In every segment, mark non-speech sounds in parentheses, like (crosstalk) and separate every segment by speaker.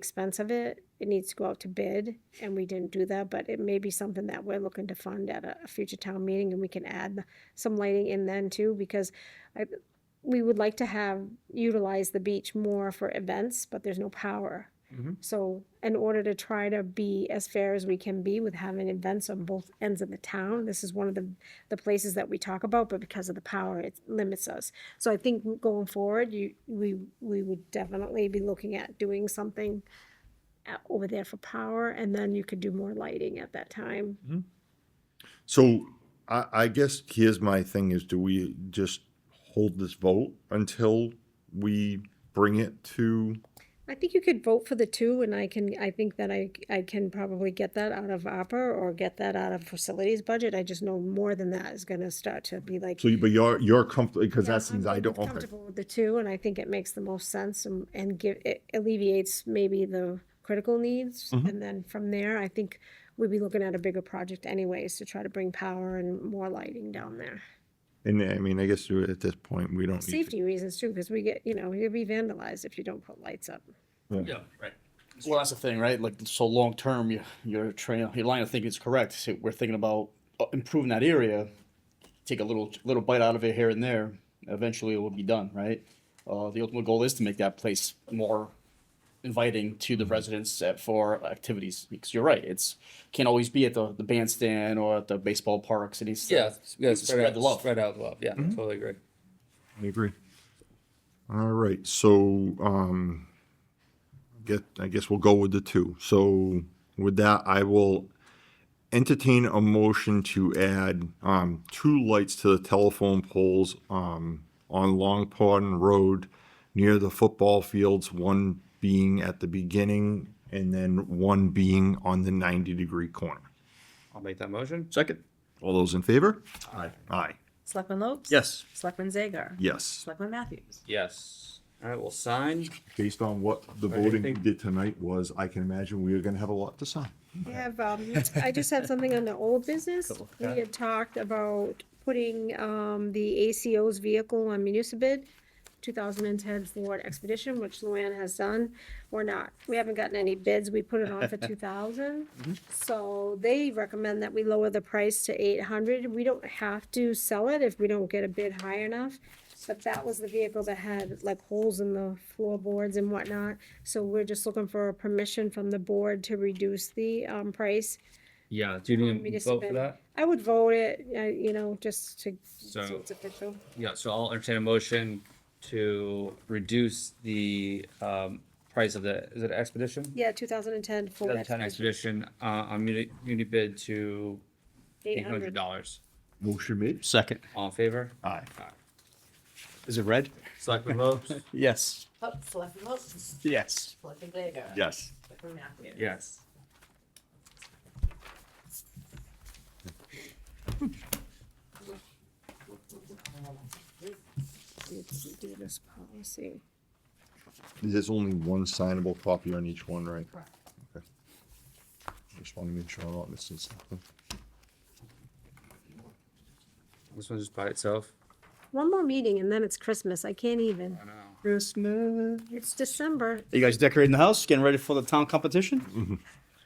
Speaker 1: expense of it, it needs to go out to bid, and we didn't do that, but it may be something that we're looking to fund at a, a future town meeting, and we can add some lighting in then too, because I, we would like to have, utilize the beach more for events, but there's no power.
Speaker 2: Mhm.
Speaker 1: So in order to try to be as fair as we can be with having events on both ends of the town, this is one of the, the places that we talk about, but because of the power, it limits us. So I think going forward, you, we, we would definitely be looking at doing something at- over there for power, and then you could do more lighting at that time.
Speaker 3: So I, I guess here's my thing is do we just hold this vote until we bring it to,
Speaker 1: I think you could vote for the two, and I can, I think that I, I can probably get that out of opera or get that out of facilities budget, I just know more than that is gonna start to be like.
Speaker 3: so you, but you're, you're comfortable, because
Speaker 1: Yeah,
Speaker 3: that seems,
Speaker 1: I'm
Speaker 3: I don't, okay.
Speaker 1: Comfortable with the two, and I think it makes the most sense and, and give, it alleviates maybe the critical needs.
Speaker 3: Mm-hmm.
Speaker 1: And then from there, I think we'd be looking at a bigger project anyways to try to bring power and more lighting down there.
Speaker 3: And I mean, I guess at this point, we don't need to.
Speaker 1: Safety reasons too, because we get, you know, you'll be vandalized if you don't put lights up.
Speaker 2: Yeah, right.
Speaker 4: Well, that's the thing, right? Like, so long term, your your train, your line of thinking is correct. So we're thinking about uh, improving that area, take a little little bite out of it here and there. Eventually, it will be done, right? Uh, the ultimate goal is to make that place more inviting to the
Speaker 2: Mm-hmm.
Speaker 4: residents at, for activities. Because you're right, it's can't always be at the, the bandstand or at the baseball parks. It needs to-
Speaker 2: Yeah, yeah,
Speaker 4: needs to
Speaker 2: spread out
Speaker 4: the love.
Speaker 2: Spread out the love. Yeah,
Speaker 5: Mm-hmm.
Speaker 2: totally agree.
Speaker 3: I agree. All right, so, um, get, I guess we'll go with the two. So with that, I will entertain a motion to add, um, two lights to the telephone poles, um, on Long Pond Road near the football fields, one being at the beginning and then one being on the ninety-degree corner.
Speaker 2: I'll make that motion.
Speaker 4: Second.
Speaker 3: All those in favor? Aye. Aye,
Speaker 6: Selectman Lopes?
Speaker 4: Yes.
Speaker 6: Selectman Zager?
Speaker 3: yes.
Speaker 6: Selectman Matthews?
Speaker 2: Yes. All right, we'll sign.
Speaker 3: based on what the
Speaker 2: I
Speaker 3: voting
Speaker 2: think-
Speaker 3: did tonight was, I can imagine we are gonna have a lot to sign.
Speaker 1: I have, um, I just have something on the old business. We had talked about putting, um, the ACO's vehicle on municipal two thousand and ten Ford Expedition, which Luann has done. We're not, we haven't gotten any bids. We put it on for two thousand. So they recommend that we lower the price to eight hundred. We don't have to sell it if we don't get a bid high enough. But that was the vehicle that had like holes in the floorboards and whatnot. So we're just looking for a permission from the board to reduce the, um, price.
Speaker 5: Yeah, do you
Speaker 1: Um,
Speaker 5: need to
Speaker 1: municipal-
Speaker 5: vote for that?
Speaker 1: I would vote it, uh, you know, just to, so
Speaker 5: So-
Speaker 1: it's official.
Speaker 5: Yeah, so I'll entertain a motion to reduce the um price of the, is it Expedition?
Speaker 1: Yeah, two thousand and ten Ford
Speaker 5: The ten
Speaker 1: Expedition,
Speaker 5: Expedition, uh, on muni, muni bid to
Speaker 1: eight
Speaker 5: eight hundred
Speaker 1: hundred.
Speaker 5: dollars.
Speaker 3: Motion made.
Speaker 4: Second.
Speaker 5: All in favor?
Speaker 3: Aye.
Speaker 4: Is it red?
Speaker 2: Selectman Lopes.
Speaker 4: Yes.
Speaker 6: Oh, Selectman Lopes?
Speaker 4: Yes.
Speaker 6: Selectman Zager?
Speaker 3: Yes.
Speaker 6: Selectman Matthews?
Speaker 5: (laughs) Yes.
Speaker 1: Do this policy.
Speaker 3: There's only one signable copy on each one, right?
Speaker 6: Correct.
Speaker 3: Okay. Just wanna make sure I'm not missing something.
Speaker 5: This one's just by itself.
Speaker 1: One more meeting and then it's Christmas. I can't even.
Speaker 5: I know.
Speaker 4: Christmas.
Speaker 1: It's December.
Speaker 4: Are you guys decorating the house, getting ready for the town competition?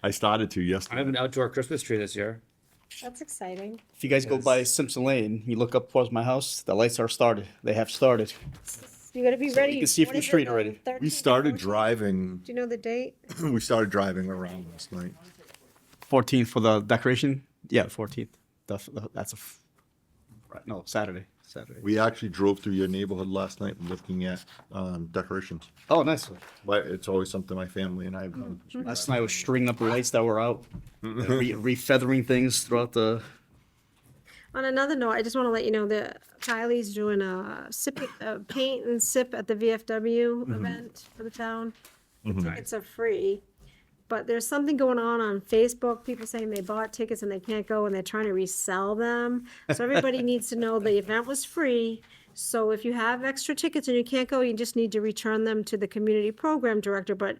Speaker 3: I started to
Speaker 5: I
Speaker 3: yesterday.
Speaker 5: have an outdoor Christmas tree this year.
Speaker 1: That's exciting.
Speaker 4: If you guys go by Simpson Lane, you look up towards my house, the lights are started. They have started.
Speaker 1: You gotta be ready.
Speaker 4: can see it
Speaker 1: What
Speaker 4: from the
Speaker 1: is
Speaker 4: street
Speaker 1: the
Speaker 4: already.
Speaker 1: 13th
Speaker 3: We
Speaker 1: or
Speaker 3: started
Speaker 1: 14th?
Speaker 3: driving, (clears throat)
Speaker 1: Do you know the date?
Speaker 3: we started driving around last night.
Speaker 4: 14th for the decoration? Yeah, 14th. The, the, that's a. f- Right, no, Saturday. Saturday.
Speaker 3: We actually drove through your neighborhood last night looking at, um, decorations.
Speaker 4: Oh, nice.
Speaker 3: But it's always something my family and I have done.
Speaker 4: Last night I was stringing up the lights that were out, re- refeathering things throughout the.
Speaker 1: On another note, I just want to let you know that Kylie's doing a sip, a paint and sip at the VFW event for the town. Tickets are free, but there's something going on on Facebook, people saying they bought tickets and they can't go and they're trying to resell them. So
Speaker 5: (laughs)
Speaker 1: everybody needs to know the event was free. So if you have extra tickets and you can't go, you just need to return them to the community program director. But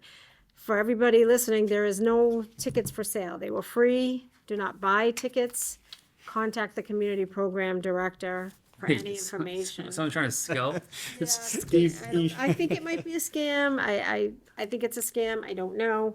Speaker 1: for everybody listening, there is no tickets for sale. They were free. Do not buy tickets. Contact the community program director for
Speaker 5: (laughs)
Speaker 1: any
Speaker 5: Hey, so-
Speaker 1: information.
Speaker 5: Someone's trying
Speaker 1: (laughs)
Speaker 5: to scalp.
Speaker 1: Yeah, I don't- I think it might be a scam. I, I, I think it's a scam. I don't know.